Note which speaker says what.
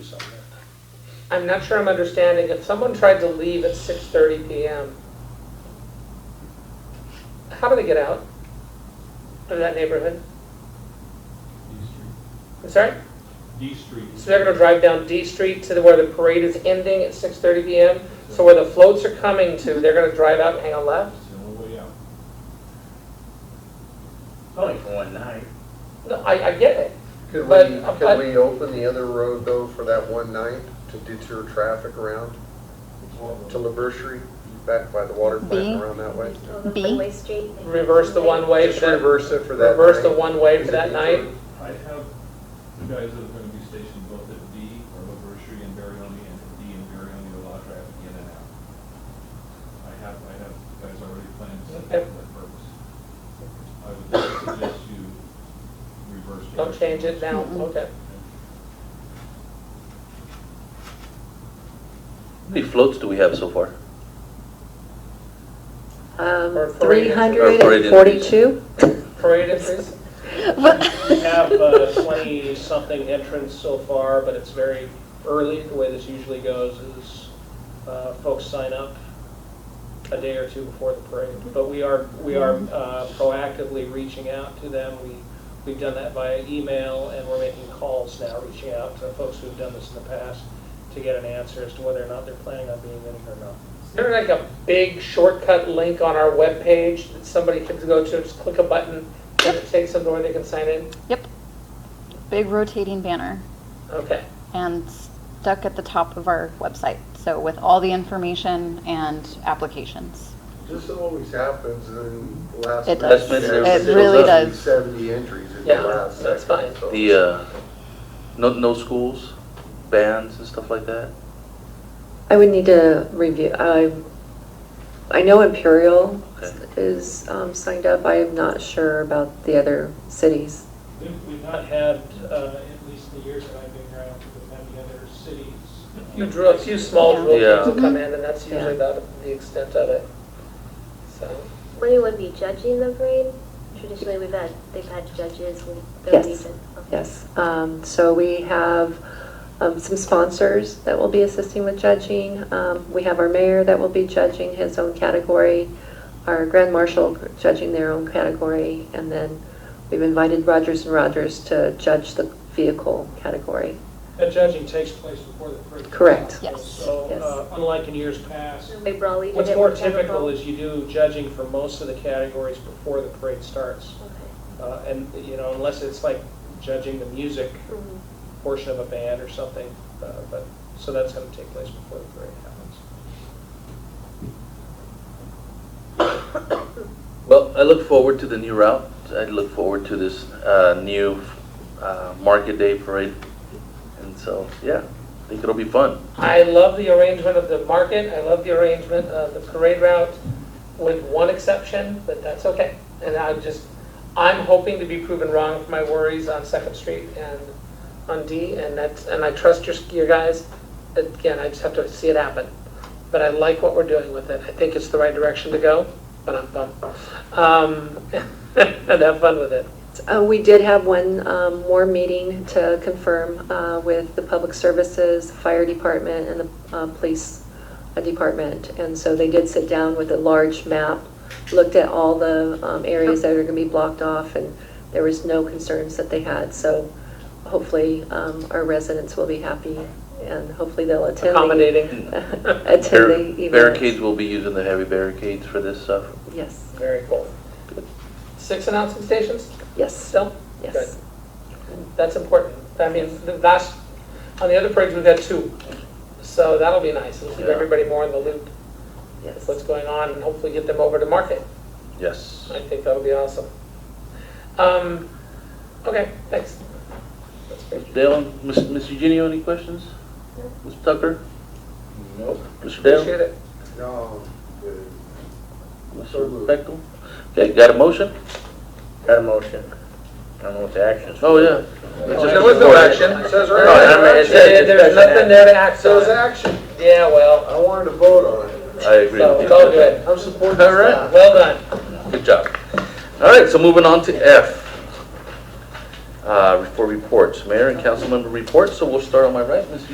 Speaker 1: I'm not sure I'm understanding. If someone tried to leave at 6:30 PM, how do they get out of that neighborhood? I'm sorry?
Speaker 2: D Street. D
Speaker 1: So
Speaker 2: Street.
Speaker 1: they're gonna drive down D Street to the- where the parade is ending at 6:30 PM? So where the floats are coming to, they're gonna drive out and hang a left?
Speaker 2: It's the only way out.
Speaker 3: Only for one night.
Speaker 1: No, I, I get it.
Speaker 4: Could
Speaker 1: But-
Speaker 4: we,
Speaker 1: but-
Speaker 4: could we open the other road though for that one night to deter traffic around to Laboratory, back by the water
Speaker 5: B.
Speaker 4: plant around that way?
Speaker 5: B.
Speaker 6: Freeway Street.
Speaker 1: Reverse the one way for
Speaker 4: Just
Speaker 1: that,
Speaker 4: reverse it for that night.
Speaker 1: reverse the one way
Speaker 4: Is
Speaker 1: for
Speaker 4: it
Speaker 1: that night?
Speaker 4: detour?
Speaker 2: I have the guys that are gonna be stationed both at D, or Laboratory and Barione, and at D and Barione, to allow traffic in and out. I have, I have guys already planned to set that for that purpose. I would suggest you reverse.
Speaker 1: Don't change it now, okay.
Speaker 7: How many floats do we have so far?
Speaker 1: Or
Speaker 8: Um,
Speaker 1: parade
Speaker 8: three
Speaker 1: entries.
Speaker 8: hundred and forty-two?
Speaker 1: Parade entries?
Speaker 3: We have
Speaker 1: uh,
Speaker 3: uh, twenty-something entrants so far, but it's very early. The way this usually goes is uh, folks sign up a day or two before the parade. But we are, we are uh, proactively reaching out to them. We, we've done that via email, and we're making calls now, reaching out to folks who've done this in the past to get an answer as to whether or not they're planning on being in it or not.
Speaker 1: Is there like a big shortcut link on our webpage that somebody could go to, just click a button, and it takes them to where they can sign in?
Speaker 5: Yep. Big rotating banner
Speaker 1: Okay.
Speaker 5: and stuck at the top of our website. So with all the information and applications.
Speaker 4: This always happens in the last.
Speaker 5: It
Speaker 4: minute.
Speaker 5: does.
Speaker 7: Last
Speaker 5: minute.
Speaker 4: There's
Speaker 5: It really
Speaker 4: roughly
Speaker 5: does.
Speaker 4: Seventy entries in the
Speaker 1: Yeah,
Speaker 4: last second.
Speaker 1: that's fine.
Speaker 4: so-
Speaker 7: The, uh, no, no schools, bands and stuff like that?
Speaker 8: I would need to review, I, I know Imperial is um, signed up, I am not sure about the other cities.
Speaker 3: We've we've not had, uh, at least the years that I've been around, we've had the other cities.
Speaker 1: You drew a few small
Speaker 5: Yeah.
Speaker 1: drill
Speaker 7: Yeah.
Speaker 1: things to come in, and that's
Speaker 8: Yeah.
Speaker 1: usually about the extent of it. So,
Speaker 6: Will anyone be judging the parade? Traditionally, we've had, they've had judges, and they'll be
Speaker 8: Yes.
Speaker 6: judged.
Speaker 8: Yes, um, so we have um, some sponsors that will be assisting with judging. Um, We have our mayor that will be judging his own category, our grand marshal judging their own category, and then we've invited Rogers and Rogers to judge the vehicle category.
Speaker 3: That judging takes place before the parade.
Speaker 8: Correct.
Speaker 5: Yes.
Speaker 3: So uh, unlike in years past,
Speaker 6: They probably did
Speaker 3: what's
Speaker 6: it
Speaker 3: more
Speaker 6: with Pepper
Speaker 3: typical
Speaker 6: Bowl.
Speaker 3: is you do judging for most of the categories before the parade starts.
Speaker 6: Okay.
Speaker 3: Uh, And, you know, unless it's like judging the music
Speaker 6: Mhm.
Speaker 3: portion of a band or something, uh, but, so that's going to take place before the parade happens.
Speaker 7: Well, I look forward to the new route. I look forward to this uh, new uh, Market Day parade. And so, yeah, I think it'll be fun.
Speaker 1: I love the arrangement of the market, I love the arrangement of the parade route, with one exception, but that's okay. And I'm just, I'm hoping to be proven wrong for my worries on Second Street and on D, and that's, and I trust your, your guys. Again, I just have to see it happen. But I like what we're doing with it. I think it's the right direction to go, but I'm bummed. Um, And have fun with it.
Speaker 8: Uh, We did have one um, more meeting to confirm uh, with the Public Services, Fire Department, and the uh, Police uh, Department. And so they did sit down with a large map, looked at all the um, areas that are going to be blocked off, and there was no concerns that they had. So hopefully, um, our residents will be happy, and hopefully they'll attend. the-
Speaker 1: Accommodating.
Speaker 8: Attend
Speaker 7: Bar-
Speaker 8: the event.
Speaker 7: Barricades will be using the heavy barricades for this stuff.
Speaker 8: Yes,
Speaker 1: Very cool. Six announcing stations
Speaker 8: yes,
Speaker 1: still? Good.
Speaker 8: yes.
Speaker 1: That's important. I mean, the last, on the other parades, we've had two. So that'll be nice. It'll keep
Speaker 7: Yeah.
Speaker 1: everybody more in the loop
Speaker 8: yes.
Speaker 1: of what's going on and hopefully get them over to market.
Speaker 7: Yes.
Speaker 1: I think that'll be awesome. Um, okay, thanks. That's great.
Speaker 7: Dale, Ms. Ms. Eugenio, any questions? Ms. Tucker? Nope. Mr. Dale?
Speaker 1: Appreciate it.
Speaker 4: No, the- So
Speaker 7: Mr.
Speaker 4: moved.
Speaker 7: Bechtel? Okay, got a motion?
Speaker 3: Got a motion. I don't know what the action
Speaker 7: Oh, yeah.
Speaker 1: There was no action. It says right
Speaker 7: No, Oh, I mean, it says
Speaker 1: Yeah, There's
Speaker 7: discussion
Speaker 1: nothing there to act
Speaker 4: So it's
Speaker 1: on.
Speaker 4: action.
Speaker 1: Yeah, well,
Speaker 4: I wanted to vote on it.
Speaker 7: I agree
Speaker 1: so
Speaker 7: with
Speaker 1: it's all
Speaker 7: you.
Speaker 1: good.
Speaker 4: I'm supporting
Speaker 7: All right.
Speaker 4: staff.
Speaker 1: Well done.
Speaker 7: Good job. All right, so moving on to F. Uh, for reports, mayor and council member reports, so we'll start on my right, Ms.